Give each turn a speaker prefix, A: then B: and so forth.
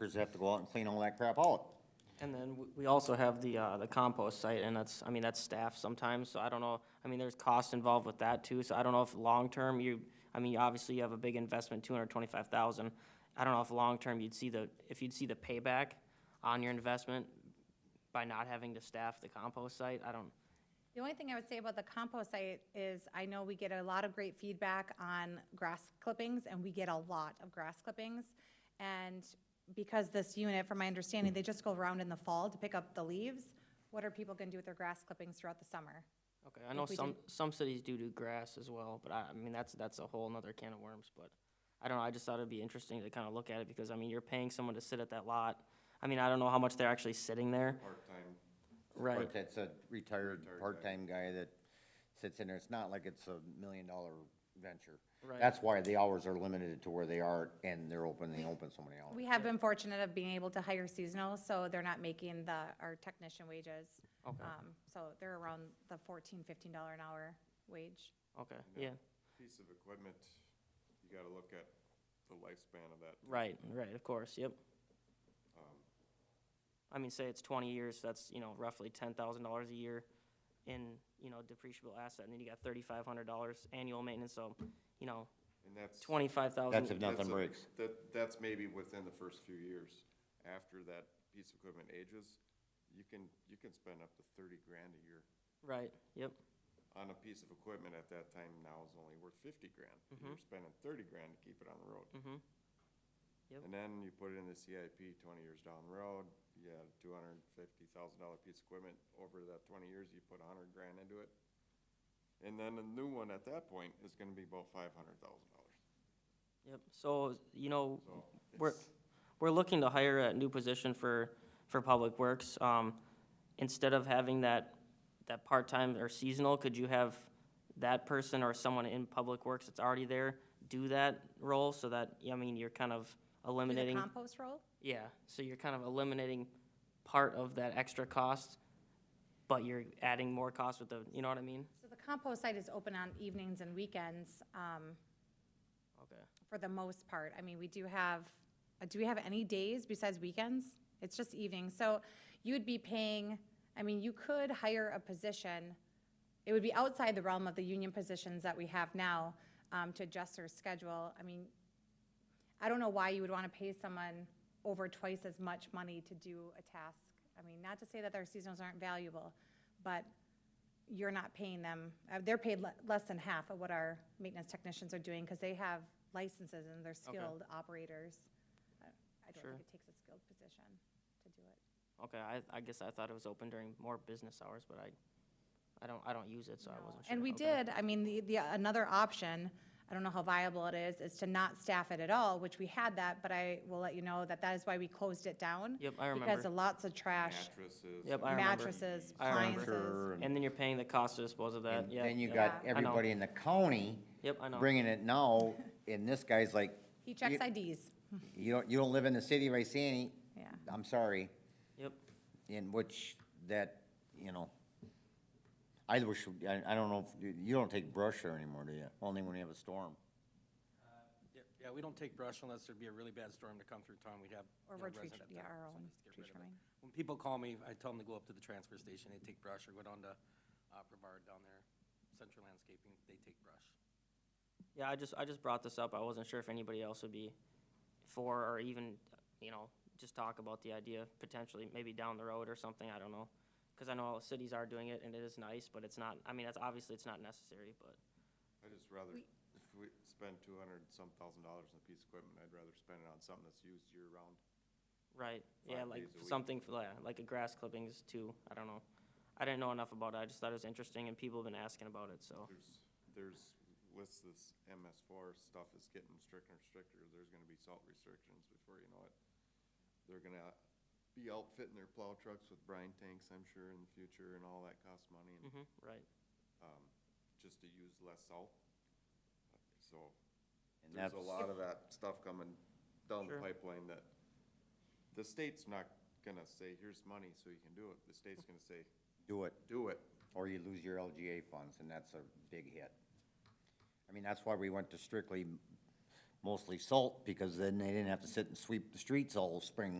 A: workers have to go out and clean all that crap out.
B: And then w- we also have the, uh, the compost site, and that's, I mean, that's staff sometimes, so I don't know, I mean, there's cost involved with that too, so I don't know if long-term you, I mean, obviously you have a big investment, two hundred twenty-five thousand. I don't know if long-term you'd see the, if you'd see the payback on your investment by not having to staff the compost site, I don't,
C: The only thing I would say about the compost site is I know we get a lot of great feedback on grass clippings and we get a lot of grass clippings. And because this unit, from my understanding, they just go around in the fall to pick up the leaves, what are people gonna do with their grass clippings throughout the summer?
B: okay, I know
C: we
B: some, some cities do do grass as well, but I, I mean, that's, that's a whole nother can of worms, but I don't know, I just thought it'd be interesting to kind of look at it, because I mean, you're paying someone to sit at that lot. I mean, I don't know how much they're actually sitting there.
D: part-time.
B: Right,
A: But that's a retired, part-time guy that sits in there. It's not like it's a million-dollar venture.
B: Right.
A: That's why the hours are limited to where they are and they're open, they open so many hours.
C: We have been fortunate of being able to hire seasonal, so they're not making the, our technician wages.
B: Okay.
C: Um, So they're around the fourteen, fifteen dollar an hour wage.
B: okay, yeah,
D: Piece of equipment, you gotta look at the lifespan of that.
B: right, right, of course, yep.
D: Um,
B: I mean, say it's twenty years, that's, you know, roughly ten thousand dollars a year in, you know, depreciable asset, and then you got thirty-five hundred dollars annual maintenance, so, you know,
D: And that's.
B: twenty-five thousand.
A: That's if nothing
D: that's a-
A: breaks.
D: That, that's maybe within the first few years. After that piece of equipment ages, you can, you can spend up to thirty grand a year
B: Right, yep,
D: on a piece of equipment at that time now is only worth fifty grand. and
A: Mm-hmm.
D: You're spending thirty grand to keep it on the road.
B: Mhm. Yep.
D: And then you put it in the CIP twenty years down the road, you had a two hundred and fifty thousand dollar piece of equipment, over that twenty years, you put a hundred grand into it. And then the new one at that point is gonna be about five hundred thousand dollars,
B: yep, so, you know,
D: so.
B: We're,
D: it's-
B: we're looking to hire a new position for, for Public Works. Um, Instead of having that, that part-time or seasonal, could you have that person or someone in Public Works that's already there do that role so that, I mean, you're kind of
C: Do the
B: eliminating?
C: compost roll?
B: Yeah, so you're kind of eliminating part of that extra cost, but you're adding more cost with the, you know what I mean?
C: So the compost site is open on evenings and weekends. Um,
B: Okay.
C: for the most part. I mean, we do have, uh, do we have any days besides weekends? It's just evenings. So you would be paying, I mean, you could hire a position. It would be outside the realm of the union positions that we have now um, to adjust their schedule. I mean, I don't know why you would want to pay someone over twice as much money to do a task. I mean, not to say that their seasonals aren't valuable, but you're not paying them, uh, they're paid le- less than half of what our maintenance technicians are doing because they have licenses and they're skilled operators. I I don't
B: Sure.
C: think it takes a skilled position to do it.
B: Okay, I, I guess I thought it was open during more business hours, but I, I don't, I don't use it, so I
C: No.
B: wasn't sure.
C: And we
B: Okay.
C: did, I mean, the, the, another option, I don't know how viable it is, is to not staff it at all, which we had that, but I will let you know that that is why we closed it down.
B: Yep, I
C: Because
B: remember.
C: of lots of trash,
D: Mattresses.
B: Yep,
D: and
B: I remember.
C: mattresses,
B: I remember.
C: appliances.
A: And
B: And then you're paying the cost to dispose of that, yeah.
A: Then you
B: yeah.
A: got
B: I know.
A: everybody in the county
B: Yep, I know.
A: bringing it now, and this guy's like,
C: He checks
A: You-
C: IDs,
A: you don't, you don't live in the city of Iceni,
C: yeah.
A: I'm sorry.
B: Yep,
A: in which that, you know, I wish, I, I don't know, if you- you don't take brush there anymore, do you? Only when you have a storm.
E: Yeah, Yeah, we don't take brush unless there'd be a really bad storm to come through town, we'd have.
C: Or
E: you know,
C: we're tree-
E: resident
C: yeah,
E: that
C: our
E: wants
C: own
E: us to get
C: tree
E: rid of it.
C: trimming.
E: When people call me, I tell them to go up to the transfer station, they take brush, or go down to uh, Brevard down there, Central Landscaping, they take brush.
B: yeah, I just, I just brought this up, I wasn't sure if anybody else would be for, or even, you know, just talk about the idea potentially, maybe down the road or something, I don't know. Cause I know all the cities are doing it and it is nice, but it's not, I mean, that's, obviously it's not necessary, but,
D: I'd just rather, if we spend two hundred some thousand dollars on a piece of equipment, I'd rather spend it on something that's used year-round.
B: right, yeah,
D: Five
B: like
D: days a week.
B: something, for- yeah, like a grass clippings too, I don't know. I didn't know enough about it, I just thought it was interesting and people have been asking about it, so,
D: There's, there's, with this MS four stuff is getting stricter and stricter, there's gonna be salt restrictions before you know it. They're gonna be outfitting their plow trucks with brine tanks, I'm sure, in the future, and all that costs money, and,
B: mhm, right,
D: um, just to use less salt. So,
A: And
D: there's a
A: that's-
D: lot of that stuff coming down the
B: Sure.
D: pipeline that the state's not gonna say, here's money so you can do it. The state's gonna say,
A: Do it,
D: do it.
A: or you lose your LGA funds, and that's a big hit. I mean, that's why we went to strictly mostly salt, because then they didn't have to sit and sweep the streets all spring